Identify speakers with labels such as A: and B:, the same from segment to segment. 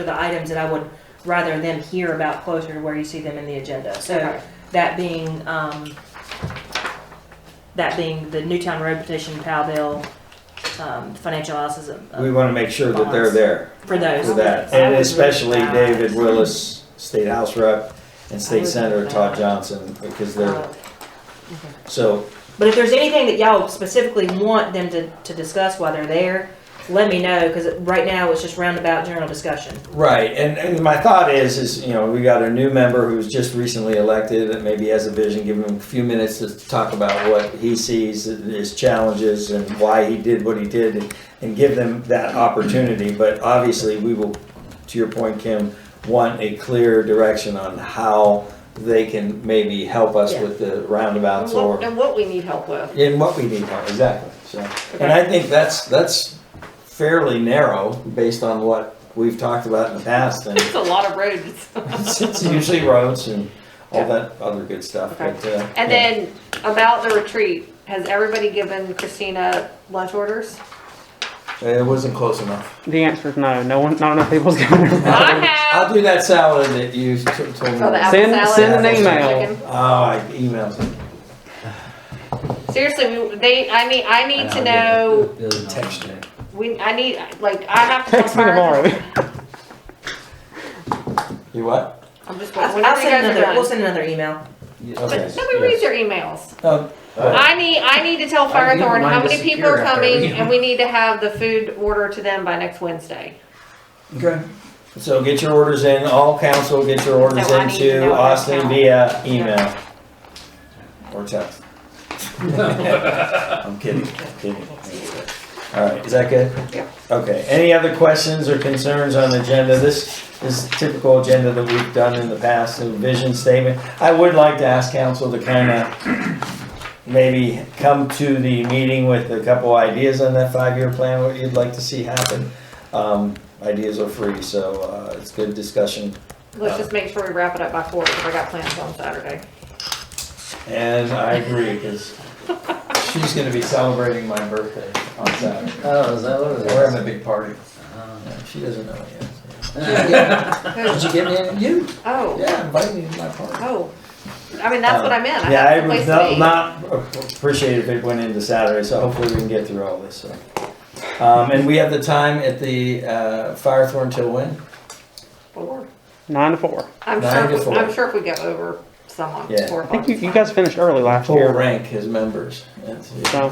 A: are the items that I would rather them hear about closer to where you see them in the agenda. So that being, um, that being the Newtown Road petition, Powell bill, um, financial analysis of-
B: We
A: of-
B: want to make sure that they're
A: Bonds.
B: there
A: for those.
B: for that.
C: I would
B: And
C: really
B: especially
C: like-
B: David Willis, State House Rep, and
A: I
B: State
A: would
B: Senator
A: like
B: Todd
A: that.
B: Johnson, because
A: Uh,
B: they're, so,
A: But if there's anything that y'all specifically want them to, to discuss while they're there, let me know, because right now it's just roundabout general discussion.
B: right. And, and my thought is, is, you know, we got a new member who's just recently elected and maybe has a vision, give him a few minutes to talk about what he sees, his challenges and why he did what he did and- and give them that opportunity. But obviously, we will, to your point, Kim, want a clear direction on how they can maybe help us
C: Yeah.
B: with the roundabouts
C: And
B: or
C: what- And what we need help with.
B: in what we need help, exactly, so. And I think that's, that's fairly narrow based on what we've talked about in the past and
C: It's a lot of roads.
B: it's it's usually roads and all that other good stuff,
C: Okay.
B: but, uh.
C: And
B: yeah.
C: then about the retreat, has everybody given Christina lunch orders?
B: It wasn't close enough.
D: The answer is no. No one, not enough people's going to.
C: I have.
B: I'll do that salad that you t- told me.
C: Oh, the apple
D: Send-
C: salad
D: send
B: an
C: and the
D: email.
C: chicken.
B: Oh, I emailed
C: Seriously, we- they, I mean, I need to
E: And I'll
C: know,
E: get the- the other
B: Text
E: knowledge.
C: we, I need, like, I have to.
D: Text me
C: confirm-
D: tomorrow.
B: you what?
C: I'm just,
A: I'll
C: whenever you
A: send
C: guys are
A: another, we'll
C: done.
A: send another email.
B: Okay.
C: But nobody reads their emails.
B: Oh, uh,
C: I need, I need to tell
E: I need
C: Firethorn how
E: mine to
C: many people
E: secure
C: are
E: after
C: coming
E: every-
C: and we need to have the food order to them by next Wednesday.
B: Good. So get your orders in, all council, get your orders
C: So I need to know
B: into
C: what
B: Austin
C: count.
B: via email. Or text. I'm kidding, kidding. All right, is that good?
C: Yeah.
B: Okay, any other questions or concerns on the agenda? This is typical agenda that we've done in the past, a vision statement. I would like to ask council to kind of maybe come to the meeting with a couple ideas on that five-year plan, what you'd like to see happen. Um, Ideas are free, so uh, it's good discussion.
C: Let's just make sure we wrap it up by four, because I got plans on Saturday.
B: And I agree, because she's gonna be celebrating my birthday on Saturday.
E: Oh, is that what it is?
B: We're having a big party.
E: Oh.
B: Yeah, She doesn't know it yet.
E: Uh,
B: Did
C: Who?
B: you get me? You?
C: Oh,
B: Yeah, invite me to my party.
C: oh, I mean, that's what I meant, I
B: Um, Yeah, I
C: have a place
B: would
C: to
B: not-
C: be.
B: not appreciate if it went into Saturday, so hopefully we can get through all this, so. Um, and we have the time at the, uh, Firethorn till when?
C: Four.
D: Nine to four.
C: I'm
B: Nine to
C: sure, if we-
B: four.
C: I'm sure if we go over someone,
B: Yeah.
C: four
D: I
C: o'clock.
D: think you, you guys finished early last
B: Full
D: year.
B: rank his members. That's it.
D: So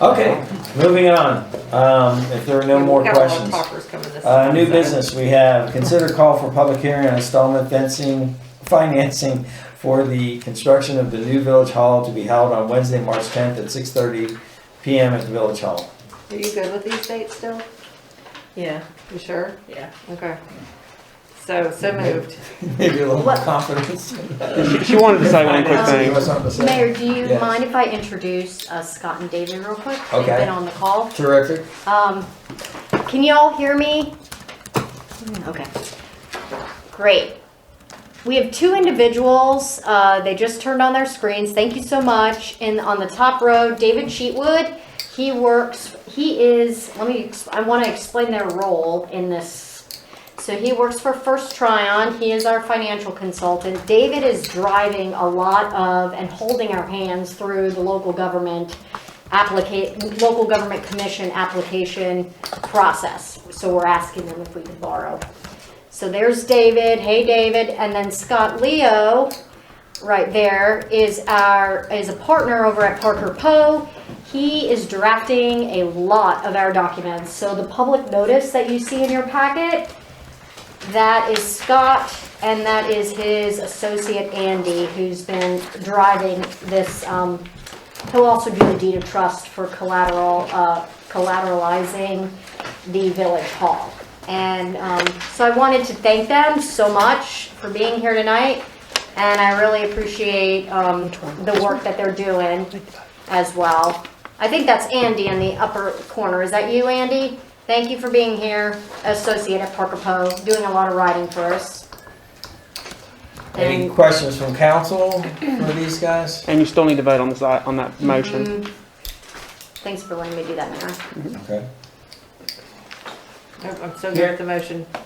B: Okay, moving on. Um, if there are no
C: We've
B: more
C: got a lot of
B: questions.
C: talkers coming this
B: Uh, new
C: Saturday.
B: business, we have consider call for public hearing on installment fencing, financing for the construction of the new village hall to be held on Wednesday, March tenth at six thirty PM at the village hall.
C: Are you good with these dates still?
A: Yeah,
C: You sure?
A: yeah.
C: Okay. So, so moved.
B: Maybe a little
F: What?
B: confidence.
D: she, she wanted to say one quick
B: You
D: thing.
B: have something to say?
F: Mayor, do you
B: Yes.
F: mind if I introduce uh, Scott and David real quick?
B: Okay.
F: They've been on the call.
B: Terrific.
F: Um, Can you all hear me? Okay. Great. We have two individuals, uh, they just turned on their screens, thank you so much. And on the top row, David Sheetwood, he works, he is, let me, ex- I want to explain their role in this. So he works for First Tryon, he is our financial consultant. David is driving a lot of and holding our hands through the local government applica, local government commission application process. So we're asking them if we could borrow. So there's David, hey David, and then Scott Leo, right there, is our, is a partner over at Parker Poe. He is drafting a lot of our documents, so the public notice that you see in your packet, that is Scott, and that is his associate Andy, who's been driving this, um, he'll also do the deed of trust for collateral, uh, collateralizing the village hall. And um, so I wanted to thank them so much for being here tonight, and I really appreciate um, the work that they're doing as well. I think that's Andy in the upper corner. Is that you, Andy? Thank you for being here, associate at Parker Poe, doing a lot of writing for us.
B: Any
F: And
B: questions from council for these guys?
D: And you still need to vote on this i- on that motion.
F: thanks for letting me do that, Mayor.
B: Okay.
C: Oh,
A: Nope, I'm still good with the motion.